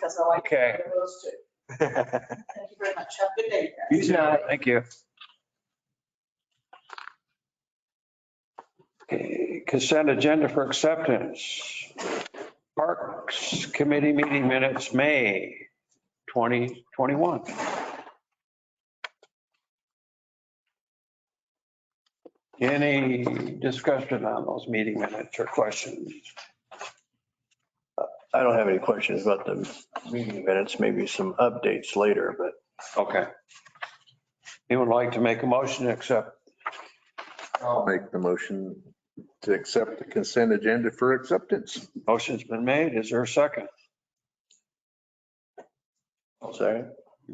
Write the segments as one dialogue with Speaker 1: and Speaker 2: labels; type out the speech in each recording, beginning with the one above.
Speaker 1: That's all I can
Speaker 2: Okay.
Speaker 1: do for those two. Thank you very much. Have a good day. guys.
Speaker 2: You too. Thank you. Okay, Consent agenda for acceptance. Parks Committee meeting minutes, May 2021. Any discussion on those meeting minutes or questions?
Speaker 3: I don't have any questions about the meeting minutes, maybe some updates later, but
Speaker 2: Okay. Anyone like to make a motion to accept?
Speaker 4: I'll make the motion to accept the consent agenda for acceptance.
Speaker 2: Motion's been made. Is there a second?
Speaker 3: I'll say.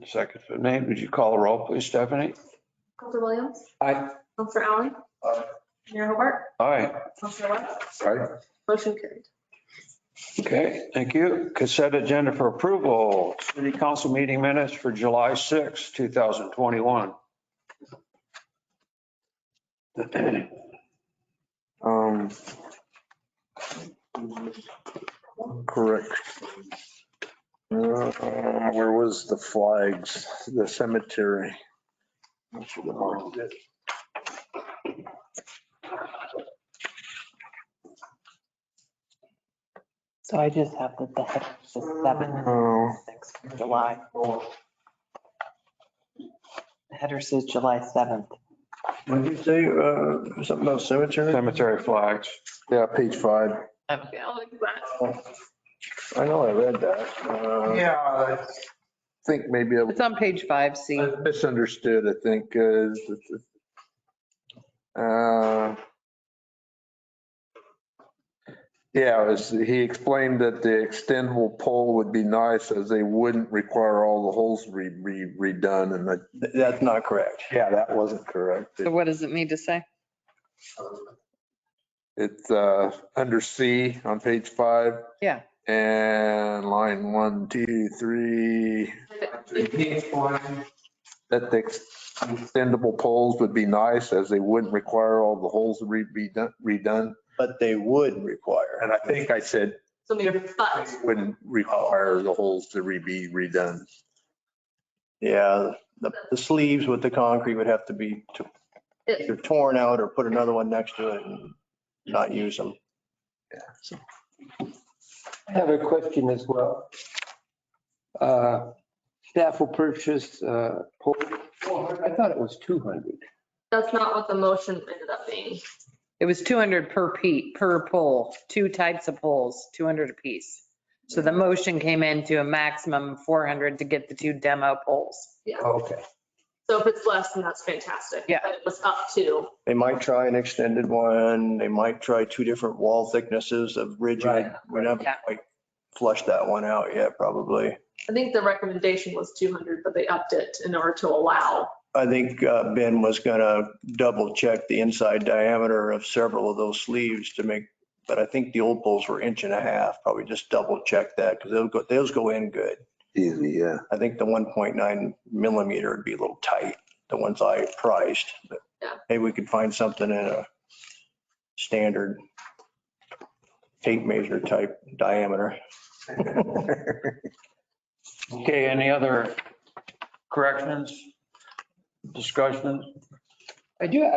Speaker 2: Second's been made. Would you call the roll, please, Stephanie?
Speaker 5: Counselor Williams?
Speaker 2: Aye.
Speaker 5: Counselor Allen?
Speaker 1: Mayor Hobart?
Speaker 2: Aye.
Speaker 1: Counselor Webb?
Speaker 4: Aye.
Speaker 5: Motion carried.
Speaker 2: Okay, thank you. Cassette agenda for approval, city council meeting minutes for July 6, 2021.
Speaker 4: Um. Correct. Uh, Where was the flags, the cemetery? I should have marked it.
Speaker 6: So I just have that the head is the seventh,
Speaker 4: Oh,
Speaker 6: sixth of July. The header says July seventh.
Speaker 3: What did you say, uh, something about cemetery?
Speaker 2: Cemetery flags.
Speaker 4: Yeah, page five.
Speaker 5: Okay, I'll look at that.
Speaker 3: I know I read that. Uh,
Speaker 4: Yeah. I Think maybe I
Speaker 6: It's on page five, C.
Speaker 4: I misunderstood, I think, uh, uh, yeah, it was, he explained that the extendable pole would be nice as they wouldn't require all the holes re, re, redone and that,
Speaker 3: th- That's not correct.
Speaker 4: yeah, that wasn't correct.
Speaker 7: So what does it need to say?
Speaker 4: It's, uh, under C on page five.
Speaker 7: Yeah.
Speaker 4: And line one, two, three. That the extendable poles would be nice as they wouldn't require all the holes to re- be done- redone.
Speaker 3: But they would require.
Speaker 4: And I think I said
Speaker 5: Something but.
Speaker 4: wouldn't require the holes to re- be redone.
Speaker 3: Yeah, the, the sleeves with the concrete would have to be t- either torn out or put another one next to it and not use them.
Speaker 8: I have a question as well. Uh, Staff will purchase, uh, pole- I thought it was 200.
Speaker 5: That's not what the motion ended up being.
Speaker 7: It was 200 per pe, per pole, two types of poles, 200 apiece. So the motion came in to a maximum of 400 to get the two demo poles.
Speaker 8: Okay.
Speaker 5: So if it's less, then that's fantastic.
Speaker 7: Yeah.
Speaker 5: But it was up to.
Speaker 3: They might try an extended one. They might try two different wall thicknesses of rigid. We haven't
Speaker 7: Yeah.
Speaker 3: quite flushed that one out yet, probably.
Speaker 5: I think the recommendation was 200, but they upped it in order to allow.
Speaker 3: I think uh, Ben was gonna double check the inside diameter of several of those sleeves to make, but I think the old poles were inch and a half, probably just double check that because they'll go, those go in good.
Speaker 4: Easy, yeah.
Speaker 3: I think the 1.9 millimeter would be a little tight, the ones I priced, but
Speaker 5: Yeah.
Speaker 3: maybe we could find something in a standard tape measure type diameter.
Speaker 2: Okay, any other corrections, discussions?
Speaker 8: I do, I,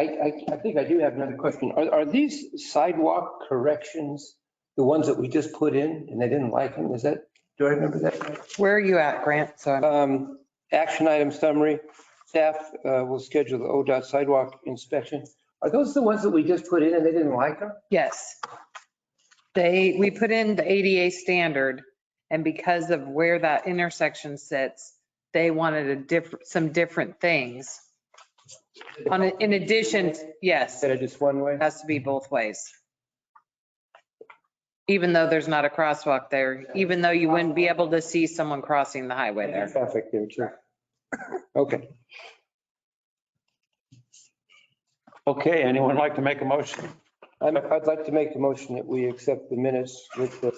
Speaker 8: I- I think I do have another question. Are, are these sidewalk corrections the ones that we just put in and they didn't like them? Is that, do I remember that?
Speaker 7: Where are you at, Grant? So I'm
Speaker 8: Um, Action item summary, staff uh, will schedule the ODOT sidewalk inspection. Are those the ones that we just put in and they didn't like them?
Speaker 7: Yes. They, we put in the ADA standard and because of where that intersection sits, they wanted a different, some different things. On, a- in addition, yes,
Speaker 8: Instead
Speaker 7: it
Speaker 8: of just one way?
Speaker 7: has to be both ways. Even though there's not a crosswalk there, even though you wouldn't be able to see someone crossing the highway there.
Speaker 8: Traffic there too. Okay.
Speaker 2: Okay, anyone like to make a motion?
Speaker 8: I'm- I'd like to make the motion that we accept the minutes with the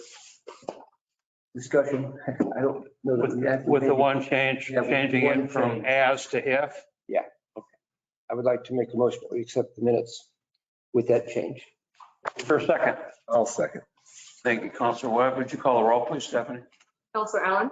Speaker 8: discussion. I don't know that we have. to
Speaker 2: With
Speaker 8: make
Speaker 2: the
Speaker 8: it.
Speaker 2: one change,
Speaker 8: Yeah, with
Speaker 2: changing
Speaker 8: one
Speaker 2: it from
Speaker 8: change.
Speaker 2: as to if?
Speaker 8: I would like to make the motion that we accept the minutes with that change.
Speaker 2: For a second.
Speaker 4: I'll second.
Speaker 2: Thank you, Counselor Webb. Would you call the roll, please, Stephanie?
Speaker 5: Counselor Allen?